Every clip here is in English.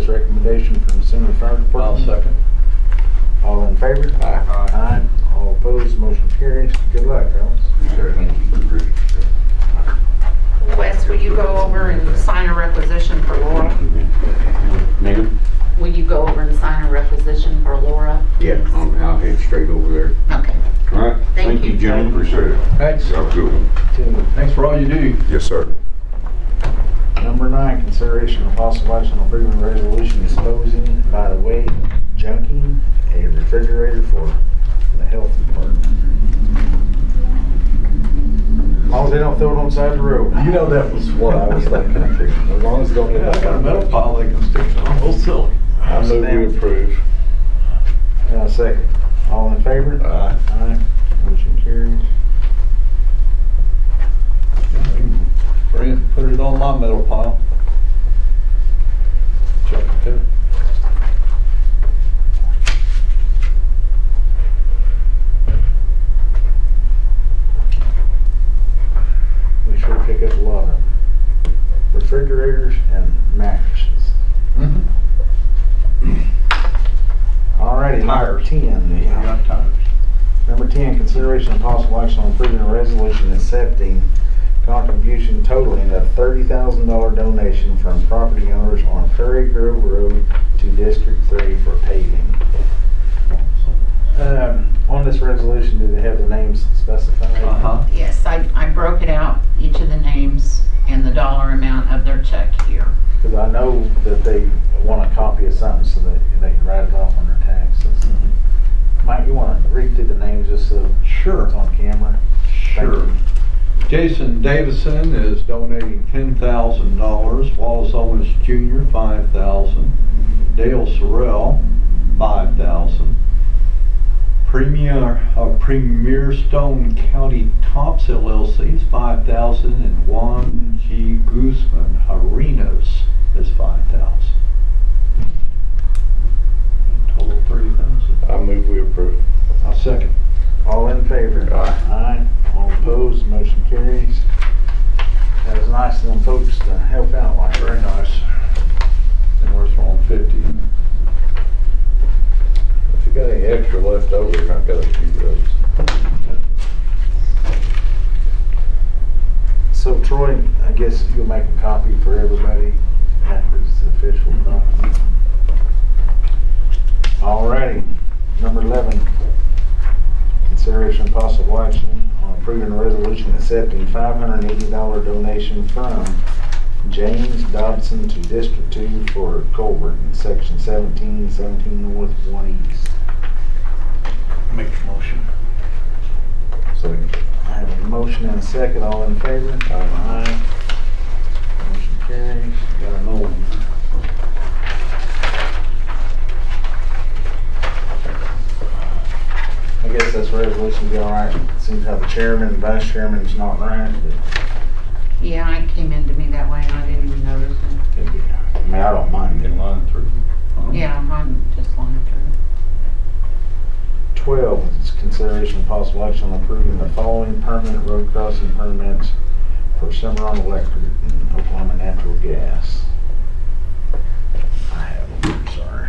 recommendation from the Senior Fire I'll Department. second. All in favor? Aye. Aye. All opposed, motion carries. Good luck, Alex. Wes, will you go over and sign a requisition for Laura? Ma'am? Will you go over and sign a requisition for Laura? Yeah, I'm- I'll head straight over there. Okay. All right, Thank thank you, you. gentlemen. Appreciate it. Thanks. Y'all have a good one. Two. Thanks for all you do. Yes, sir. Number nine, consideration of possible action on approving resolution disposing by the way junking a refrigerator for the health department. As long as they don't throw it on the side of the road. You know that was what I was thinking. As long as they don't. Yeah, I got a metal pile they can stick on wholesale. I move we approve. Uh, second. All in favor? Aye. Aye. Motion carries. Bring it, put it on my metal pile. Chuck it there. We sure pick up a lot of refrigerators and mattresses. Mhm. Alrighty, number Tires. ten We then. got tires. Number 10, consideration of possible action on approving a resolution accepting contribution totaling a $30,000 donation from property owners on Prairie Grove Road to District 3 for paving. Um, On this resolution, do they have the names specified? Uh-huh. Yes, I, I broke it out, each of the names and the dollar amount of their check here. Because I know that they want a copy of something so that they can write it off on their taxes. Mike, you want to read through the names just so Mm-hmm. Sure. it's on camera? Thank Sure. you. Jason Davison is donating ten thousand dollars, Wallace Owens Jr., five thousand, Dale Sorrell, five thousand. Premier, uh, Premier Stone County Tops LLC is five thousand, and Juan G. Guzman Arenas is five thousand. Total thirty thousand. I move we approve. I'll second. All in favor? Aye. Aye. All opposed, motion carries. That was nice of them folks to help out like that. Very nice. And we're throwing fifty. If you got any extra left over, I've got a few roads. So Troy, I guess you'll make a copy for everybody after it's official. copy. Alrighty, number eleven. Consideration and possible action on approving a resolution accepting five hundred and eighty dollar donation from James Dobson to District Two for Colbert in section seventeen, seventeen north, one east. Make the motion. So I have a motion and a second, all in favor? Aye. Aye. Motion carries. Got an old one. I guess this resolution will be all right. Seems how the chairman and vice chairman's not right, but Yeah, it came into me that way and I didn't even notice it. it'd be all right. I mean, I don't mind it. line through. Yeah, mine just lined through. Twelve is consideration of possible action on approving the following permanent road crossing permits for Cimarron Electric and Oklahoma Natural Gas. I have them, I'm sorry.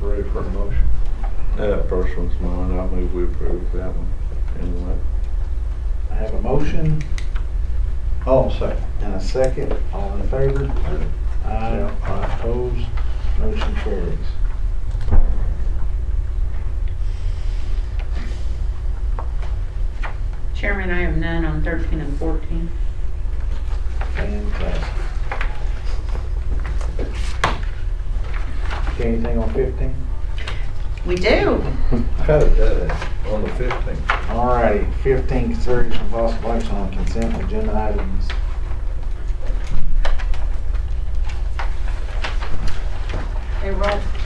Ready for a motion? That uh, first one's mine. I move we approve that one. Anyway. I have a motion Oh, second. and a second, all in favor? Aye. Aye. Opposed? Motion carries. Chairman, I have none on thirteen and fourteen. Fantastic. Okay, anything on fifteen? We do. How did that, on the fifteenth? All righty, fifteen, consideration of possible action on consent agenda items. They roll